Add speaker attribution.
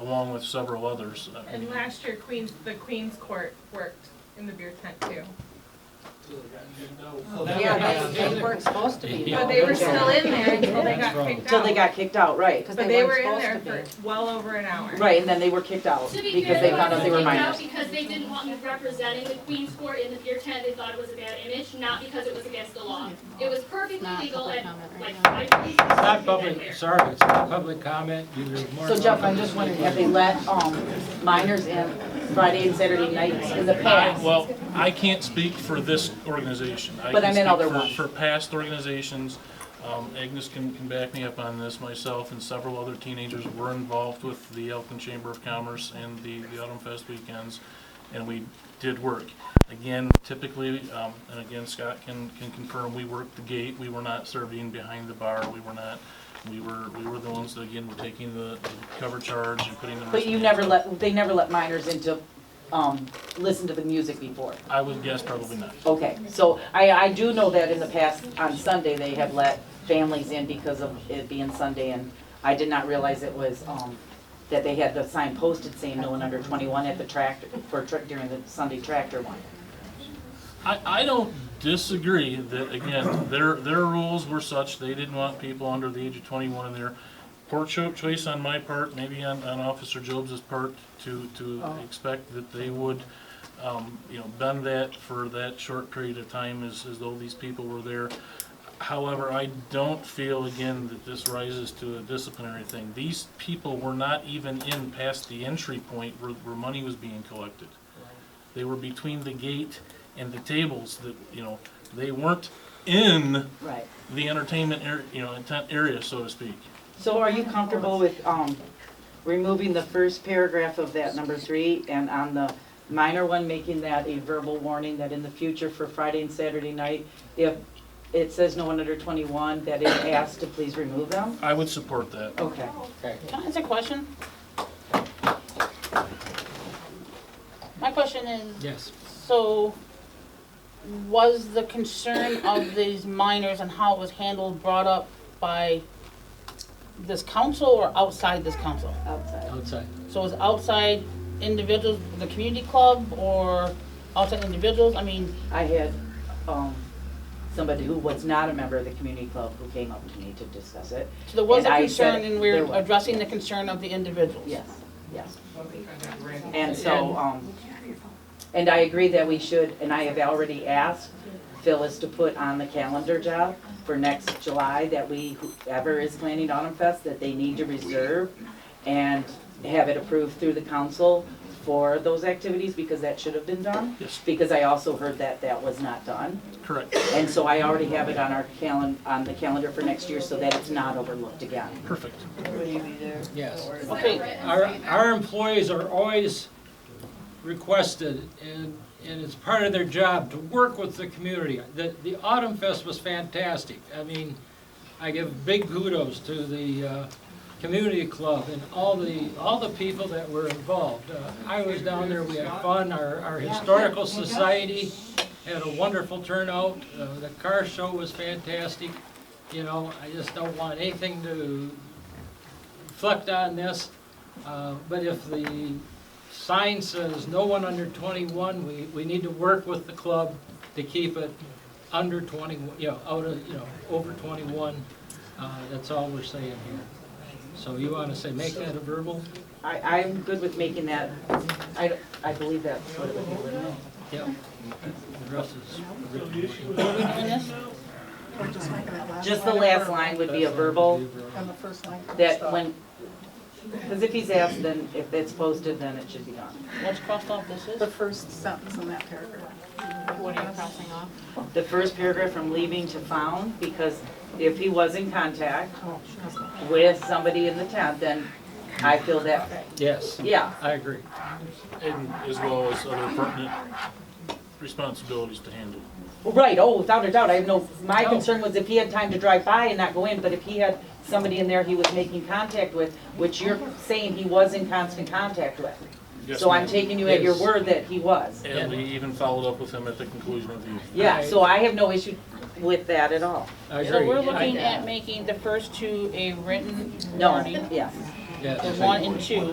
Speaker 1: along with several others. I
Speaker 2: And
Speaker 1: mean,
Speaker 2: last year, Queens, the Queens Court worked in the beer tent too.
Speaker 3: Yeah, they, they weren't supposed to be.
Speaker 4: Yeah.
Speaker 2: But
Speaker 3: though.
Speaker 2: they were still in there until they
Speaker 4: That's
Speaker 2: got
Speaker 4: wrong.
Speaker 2: kicked out.
Speaker 3: Till they got kicked out, right, because
Speaker 2: But
Speaker 3: they
Speaker 2: they were
Speaker 3: weren't
Speaker 2: in there
Speaker 3: supposed to
Speaker 2: for
Speaker 3: be.
Speaker 2: well over an hour.
Speaker 3: Right, and then they were kicked out
Speaker 5: To be
Speaker 3: because
Speaker 5: fair,
Speaker 3: they
Speaker 5: it
Speaker 3: found out they
Speaker 5: wasn't
Speaker 3: were
Speaker 5: kicked out
Speaker 3: minors.
Speaker 5: Because they didn't want me representing the Queen's Court in the beer tent, they thought it was a bad image, not because it was against the law. It was perfectly
Speaker 6: Not
Speaker 5: legal
Speaker 6: public
Speaker 5: and,
Speaker 6: comment right
Speaker 5: like,
Speaker 6: now.
Speaker 5: I believe. It's
Speaker 4: Not public, sorry, it's not public comment. You were more
Speaker 3: So Jeff, I'm just wondering, have they let, um, minors in Friday and Saturday nights in the
Speaker 1: I-
Speaker 3: past?
Speaker 1: Well, I can't speak for this organization.
Speaker 3: But I
Speaker 1: can
Speaker 3: meant
Speaker 1: speak
Speaker 3: other
Speaker 1: for-
Speaker 3: ones.
Speaker 1: For past organizations, Um, Agnes can, can back me up on this, myself and several other teenagers were involved with the Elkton Chamber of Commerce and the, the Autumn Fest weekends, and we did work. Again, typically, um, and again, Scott can, can confirm, we worked the gate, we were not serving behind the bar, we were not, we were, we were the ones that, again, were taking the the cover charge and putting the.
Speaker 3: But you
Speaker 1: wristbands
Speaker 3: never
Speaker 1: up.
Speaker 3: let, they never let minors in to, um, listen to the music before?
Speaker 1: I would guess probably not.
Speaker 3: Okay, so I, I do know that in the past, on Sunday, they have let families in because of it being Sunday, and I did not realize it was, um, that they had the sign posted saying no one under twenty-one at the tractor, for, tra- during the Sunday tractor one.
Speaker 1: I, I don't disagree that, again, their, their rules were such, they didn't want people under the age of twenty-one in there. Poor cho- choice on my part, maybe on, on Officer Jobs' part, to, to expect that they would, um, you know, bend that for that short period of time as, as though these people were there. However, I don't feel, again, that this rises to a disciplinary thing. These people were not even in past the entry point where, where money was being collected. They were between the gate and the tables that, you know, they weren't in
Speaker 3: Right.
Speaker 1: the entertainment area, you know, intent area, so to speak.
Speaker 3: So are you comfortable with, um, removing the first paragraph of that number three, and on the minor one, making that a verbal warning that in the future for Friday and Saturday night, if it says no one under twenty-one, that is asked to please remove them?
Speaker 1: I would support that.
Speaker 3: Okay.
Speaker 6: Can I ask a question? My question is,
Speaker 4: Yes.
Speaker 6: so was the concern of these minors and how it was handled brought up by this council or outside this council?
Speaker 3: Outside.
Speaker 4: Outside.
Speaker 6: So was outside individuals, the community club or outside individuals? I mean,
Speaker 3: I had, um, somebody who was not a member of the community club who came up to me to discuss it.
Speaker 6: so there was a
Speaker 3: And I said
Speaker 6: concern and
Speaker 3: there
Speaker 6: we're
Speaker 3: was.
Speaker 6: addressing the concern of the individuals.
Speaker 3: Yes, yes. And so, um, and I agree that we should, and I have already asked Phyllis to put on the calendar job for next July that we, whoever is planning Autumn Fest, that they need to reserve and have it approved through the council for those activities because that should have been done.
Speaker 1: Yes,
Speaker 3: Because I also heard that that was not done.
Speaker 1: correct.
Speaker 3: And so I already have it on our calen, on the calendar for next year so that it's not overlooked again.
Speaker 1: Perfect.
Speaker 4: Yes.
Speaker 6: Okay,
Speaker 4: Our, our employees are always requested, and, and it's part of their job to work with the community. The, the Autumn Fest was fantastic. I mean, I give big kudos to the, uh, community club and all the, all the people that were involved. Uh, I was down there, we had fun, our, our historical society had a wonderful turnout, uh, the car show was fantastic. You know, I just don't want anything to reflect on this, uh, but if the sign says no one under 21, we, we need to work with the club to keep it under 21, you know, out of, you know, over 21. Uh, That's all we're saying here. So you want to say, make that a verbal?
Speaker 3: I, I'm good with making that, I, I believe that's what it would be, wouldn't it?
Speaker 4: Yep. The rest is written.
Speaker 6: are we doing this?
Speaker 3: Just the last line would be a verbal,
Speaker 7: On the first line.
Speaker 3: that when, because if he's asked, then if it's posted, then it should be gone.
Speaker 6: What's crossed off this is?
Speaker 7: The first sentence in that paragraph.
Speaker 6: What are you crossing off?
Speaker 3: The first paragraph from leaving to found, because if he was in contact with somebody in the tent, then I feel that,
Speaker 4: Yes,
Speaker 3: yeah,
Speaker 4: I agree.
Speaker 1: And as well as other pertinent responsibilities to handle.
Speaker 3: Right, oh, without a doubt, I have no, my
Speaker 4: No.
Speaker 3: concern was if he had time to drive by and not go in, but if he had somebody in there he was making contact with, which you're saying he was in constant contact with.
Speaker 1: Yes,
Speaker 3: So I'm
Speaker 1: ma'am.
Speaker 3: taking you at your
Speaker 4: Yes.
Speaker 3: word that he was.
Speaker 1: And we even followed up with him at the conclusion of the evening.
Speaker 3: Yeah, so I have no issue with that at all.
Speaker 4: I agree.
Speaker 6: So we're
Speaker 4: I-
Speaker 6: looking at making the first two a written
Speaker 3: No,
Speaker 6: warning,
Speaker 3: yes.
Speaker 4: yes.
Speaker 6: the one and two.